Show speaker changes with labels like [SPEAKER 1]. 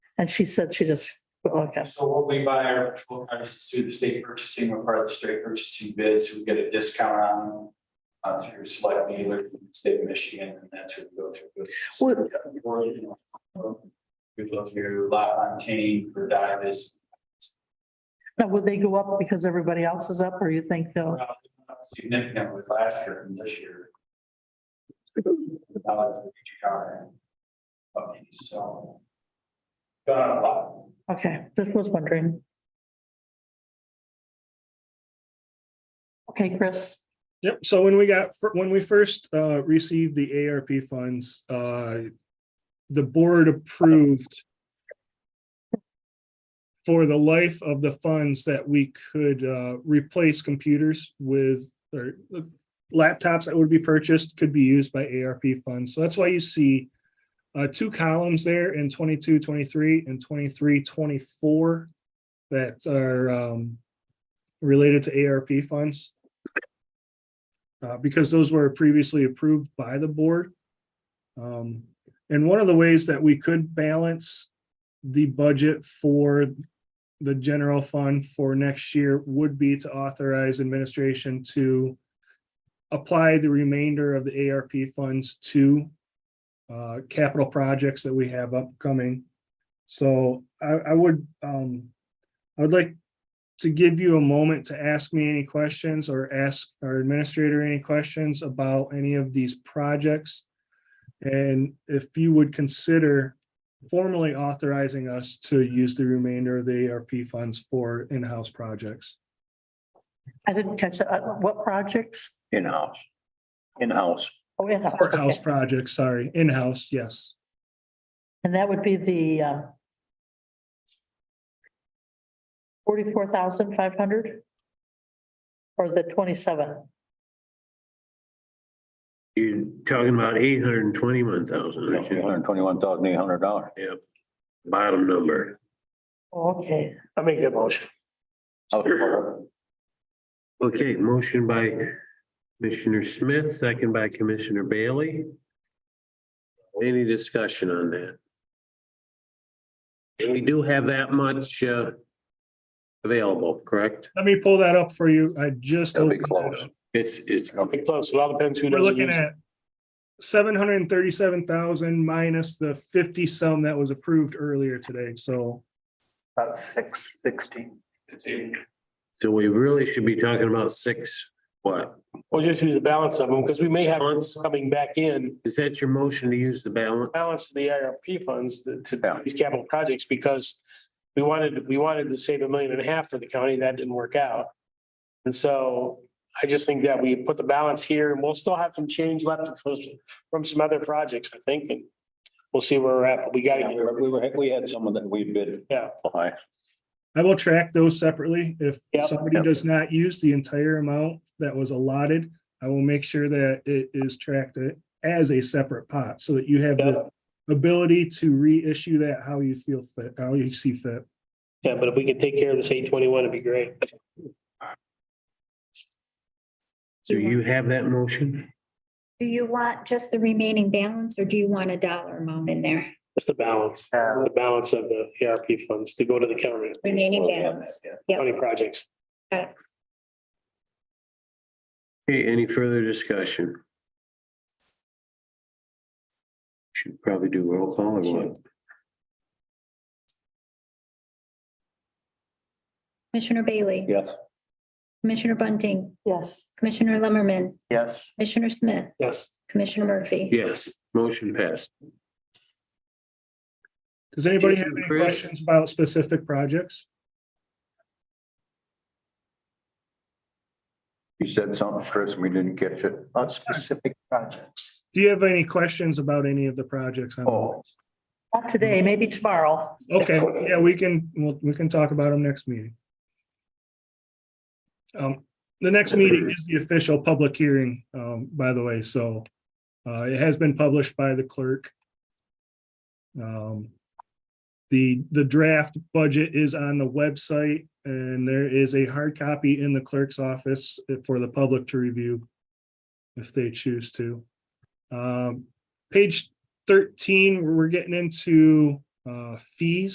[SPEAKER 1] And she said she just, okay,
[SPEAKER 2] So what we buy our patrol cars is through the state purchasing, we're part of the state purchasing bids, we get a discount on them. Uh, through select dealer, in the state of Michigan, and that's who we go through. Or, you know, We go through lot on chain for divers.
[SPEAKER 1] now would they go up because everybody else is up or you think they'll?
[SPEAKER 2] Significantly last year and this year. The dollars for each car. Okay, so. Gone up a lot.
[SPEAKER 1] Okay, just was wondering. Okay, Chris,
[SPEAKER 3] Yep, so when we got, when we first uh received the ARP funds, uh the board approved for the life of the funds that we could uh replace computers with or uh, laptops that would be purchased could be used by ARP funds. So that's why you see uh two columns there in 22, 23, and 23, 24 that are um related to ARP funds uh, because those were previously approved by the board. Um, and one of the ways that we could balance the budget for the general fund for next year would be to authorize administration to apply the remainder of the ARP funds to uh, capital projects that we have upcoming. So I, I would, um, I would like to give you a moment to ask me any questions or ask our administrator any questions about any of these projects. And if you would consider formally authorizing us to use the remainder of the ARP funds for in-house projects.
[SPEAKER 1] I didn't catch that. Uh, what projects?
[SPEAKER 4] in-house. In-house,
[SPEAKER 1] Oh, in-house,
[SPEAKER 3] Or house
[SPEAKER 1] okay.
[SPEAKER 3] projects, sorry, in-house, yes.
[SPEAKER 1] And that would be the um forty-four thousand five hundred? Or the twenty-seven?
[SPEAKER 5] You're talking about eight hundred and twenty-one thousand, aren't
[SPEAKER 4] eight
[SPEAKER 5] you?
[SPEAKER 4] hundred twenty-one thousand eight hundred dollars.
[SPEAKER 5] Yep. Bottom number.
[SPEAKER 1] Okay,
[SPEAKER 6] I make that motion.
[SPEAKER 5] Okay, motion by Commissioner Smith, second by Commissioner Bailey. Any discussion on that? And we do have that much uh available, correct?
[SPEAKER 3] Let me pull that up for you. I just.
[SPEAKER 4] It'll be
[SPEAKER 3] opened that
[SPEAKER 4] close.
[SPEAKER 3] up.
[SPEAKER 5] It's it's
[SPEAKER 6] Pretty close. It all depends who
[SPEAKER 3] We're
[SPEAKER 6] doesn't
[SPEAKER 3] looking
[SPEAKER 6] use. it.
[SPEAKER 3] at seven hundred and thirty-seven thousand minus the fifty some that was approved earlier today, so.
[SPEAKER 6] About six sixty.
[SPEAKER 5] so we really should be talking about six, what?
[SPEAKER 6] We'll just use the balance of them because we may have
[SPEAKER 5] Balance?
[SPEAKER 6] coming back in,
[SPEAKER 5] Is that your motion to use the balance?
[SPEAKER 6] balance of the IRP funds that-
[SPEAKER 4] Yeah.
[SPEAKER 6] to these capital projects because we wanted, we wanted to save a million and a half for the county. That didn't work out. And so I just think that we put the balance here and we'll still have some change left from, from some other projects, I think, and we'll see where we're at. but We got to.
[SPEAKER 4] We were, we had someone that we bid.
[SPEAKER 6] Yeah.
[SPEAKER 4] High.
[SPEAKER 3] I will track those separately. If
[SPEAKER 6] Yep.
[SPEAKER 3] somebody does not use the entire amount that was allotted, I will make sure that it is tracked as a separate pot so that you have the ability to reissue that how you feel fit, how you see fit.
[SPEAKER 6] Yeah, but if we could take care of this eight twenty-one, it'd be great.
[SPEAKER 5] So you have that motion?
[SPEAKER 7] Do you want just the remaining balance or do you want a dollar amount in there?
[SPEAKER 6] Just the balance, the balance of the ARP funds to go to the county,
[SPEAKER 7] Remaining balance.
[SPEAKER 6] county projects.
[SPEAKER 5] Okay, any further discussion? Should probably do roll call or what?
[SPEAKER 7] Commissioner Bailey.
[SPEAKER 4] Yes.
[SPEAKER 7] Commissioner Bunting,
[SPEAKER 1] yes.
[SPEAKER 7] Commissioner Lumberman,
[SPEAKER 6] Yes.
[SPEAKER 7] Commissioner Smith,
[SPEAKER 6] Yes.
[SPEAKER 7] Commissioner Murphy.
[SPEAKER 5] Yes, motion passed.
[SPEAKER 3] Does anybody have
[SPEAKER 5] Jason,
[SPEAKER 3] any
[SPEAKER 5] Chris?
[SPEAKER 3] questions about specific projects?
[SPEAKER 4] You said something, Chris, and we didn't catch it.
[SPEAKER 6] On specific projects.
[SPEAKER 3] Do you have any questions about any of the projects? on the
[SPEAKER 4] Oh.
[SPEAKER 3] list?
[SPEAKER 1] Not today, maybe tomorrow.
[SPEAKER 3] Okay, yeah, we can, we'll, we can talk about them next meeting. Um, the next meeting is the official public hearing, um, by the way, so, uh, it has been published by the clerk. Um, the, the draft budget is on the website and there is a hard copy in the clerk's office for the public to review if they choose to. Um, page thirteen, we're getting into, uh, fees.